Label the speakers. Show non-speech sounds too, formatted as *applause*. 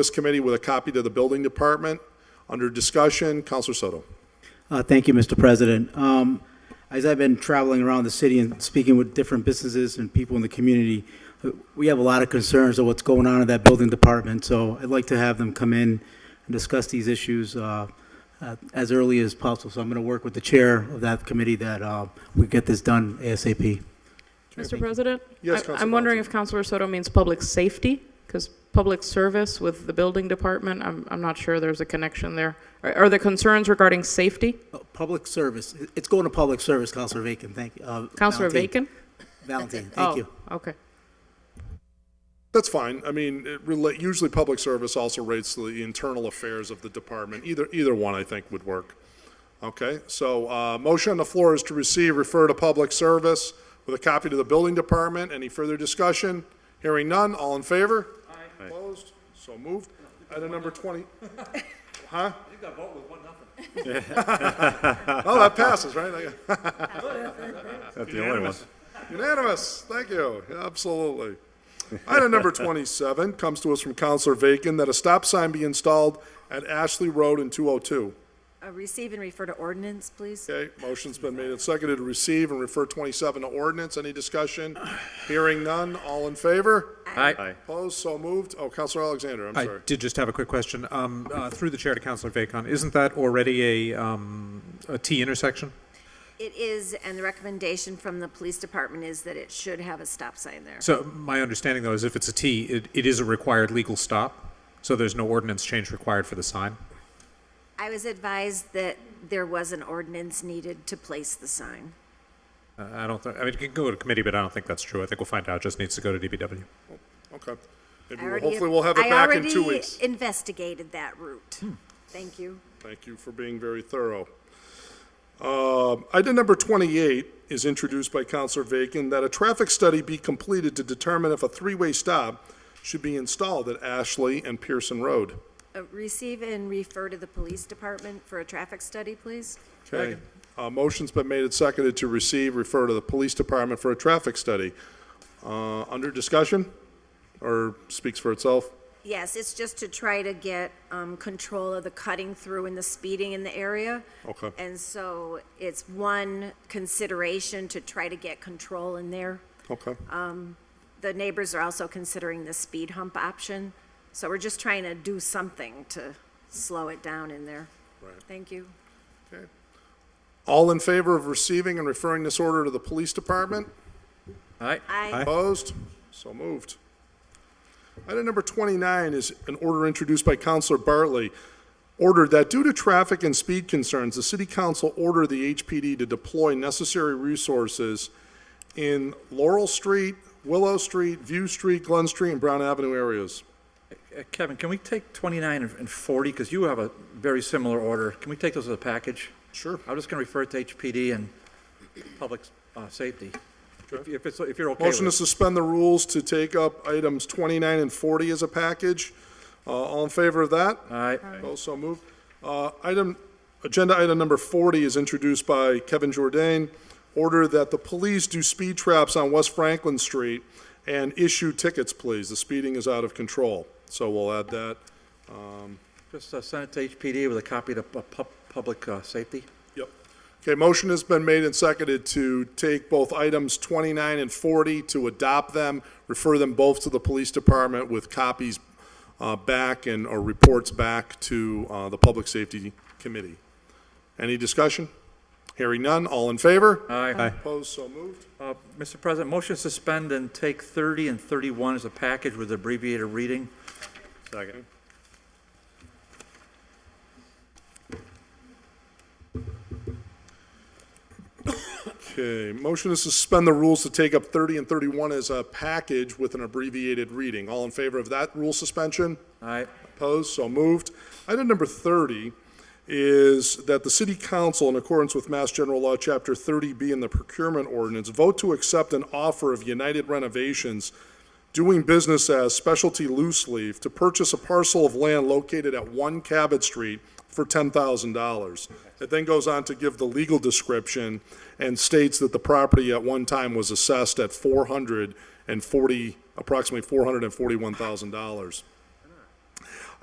Speaker 1: this committee with a copy to the building department. Under discussion, Counselor Soto.
Speaker 2: Uh, Thank you, Mr. President. Um, As I've been traveling around the city and speaking with different businesses and people in the community, uh, we have a lot of concerns of what's going on in that building department, so I'd like to have them come in and discuss these issues uh, uh, as early as possible. So I'm going to work with the chair of that committee that uh, we get this done ASAP.
Speaker 3: Mr. President?
Speaker 1: Yes,
Speaker 3: I-
Speaker 1: Councilor
Speaker 3: I'm wondering if Counselor Soto means public safety, because public service with the building department, I'm, I'm not sure there's a connection there. Are are there concerns regarding safety?
Speaker 2: Uh, Public service, It- it's going to public service, Counselor Vacan, thank you. uh,
Speaker 3: Counselor
Speaker 2: Valentine.
Speaker 3: Bacon?
Speaker 2: Valentine, thank you.
Speaker 3: Oh, okay.
Speaker 1: That's fine. I mean, it rela- usually public service also rates the internal affairs of the department. Either, either one, I think, would work. Okay, so, uh, motion on the floor is to receive, refer to public service with a copy to the building department. Any further discussion? Hearing none, all in favor? Aye. Opposed? So moved. Item number *laughs* twenty. Huh? You *laughs* got vote with one nothing. Oh, that passes, right? I-
Speaker 4: That's the only one.
Speaker 1: Unanimous, thank you, absolutely. Item number 27 comes to us from Counselor Vacan that a stop sign be installed at Ashley Road and 202.
Speaker 5: Uh, Receive and refer to ordinance, please.
Speaker 1: Okay, motion's been made and seconded to receive and refer 27 to ordinance. Any discussion? Hearing none, all in favor?
Speaker 4: Aye.
Speaker 1: Opposed, so moved. Oh, Counselor Alexander, I'm
Speaker 6: I
Speaker 1: sorry.
Speaker 6: did just have a quick question. Um, uh, Through the chair to Counselor Vacon, isn't that already a um, a T intersection?
Speaker 5: It is, and the recommendation from the police department is that it should have a stop sign there.
Speaker 6: So my understanding, though, is if it's a T, it it is a required legal stop, so there's no ordinance change required for the sign?
Speaker 5: I was advised that there was an ordinance needed to place the sign.
Speaker 6: Uh, I don't, thi- I mean, it can go to committee, but I don't think that's true. I think we'll find out, It just needs to go to DBW.
Speaker 1: Okay. Maybe
Speaker 5: I
Speaker 1: we'll-
Speaker 5: already-
Speaker 1: Hopefully, we'll have it back in two
Speaker 5: I
Speaker 1: weeks. Hmm.
Speaker 5: already investigated that route. Thank you.
Speaker 1: Thank you for being very thorough. Um, Item number 28 is introduced by Counselor Vacan, that a traffic study be completed to determine if a three-way stop should be installed at Ashley and Pearson Road.
Speaker 5: Uh, Receive and refer to the police department for a traffic study, please.
Speaker 1: Okay. Uh, Motion's been made and seconded to receive, refer to the Police Department for a traffic study. Uh, Under discussion, or speaks for itself?
Speaker 5: Yes, it's just to try to get um, control of the cutting through and the speeding in the area.
Speaker 1: Okay.
Speaker 5: And so it's one consideration to try to get control in there.
Speaker 1: Okay.
Speaker 5: The neighbors are also considering the speed hump option. So we're just trying to do something to slow it down in there. Right. Thank you.
Speaker 1: All in favor of receiving and referring this order to the Police Department?
Speaker 4: Aye.
Speaker 5: I,
Speaker 1: Opposed? So moved. Item number 29 is an order introduced by Counselor Bartley. Ordered that due to traffic and speed concerns, the city council order the HPD to deploy necessary resources in Laurel Street, Willow Street, View Street, Glen Street, and Brown Avenue areas.
Speaker 4: Uh, Kevin, can we take 29 and and 40, because you have a very similar order? Can we take those as a package?
Speaker 1: Sure.
Speaker 4: I'm just going to refer it to HPD and public uh, safety, if if it's, if you're okay with it.
Speaker 1: Motion to suspend the rules to take up items 29 and 40 as a package. Uh, All in favor of that?
Speaker 4: Aye.
Speaker 1: Opposed, so moved. Uh, Item, agenda item number 40 is introduced by Kevin Jordan. Order that the police do speed traps on West Franklin Street and issue tickets, please. The speeding is out of control. So we'll add that.
Speaker 4: Just uh, send it to HPD with a copy to pu- pu- public uh, safety.
Speaker 1: Yep. Okay, motion has been made and seconded to take both items 29 and 40, to adopt them, refer them both to the police department with copies uh, back and, or reports back to uh, the Public Safety Committee. Any discussion? Hearing none, all in favor?
Speaker 4: Aye.
Speaker 1: Opposed, so moved.
Speaker 4: Uh, Mr. President, motion to suspend and take 30 and 31 as a package with abbreviated reading.
Speaker 1: Second. Okay, motion to suspend the rules to take up 30 and 31 as a package with an abbreviated reading. All in favor of that rule suspension?
Speaker 4: Aye.
Speaker 1: Opposed, so moved. Item number 30 is that the city council, in accordance with Mass General Law, Chapter 30B and the procurement ordinance, vote to accept an offer of United Renovations doing business as Specialty Loose Leaf to purchase a parcel of land located at 1 Cabot Street for $10,000. It then goes on to give the legal description and states that the property at one time was assessed at 440, approximately $441,000.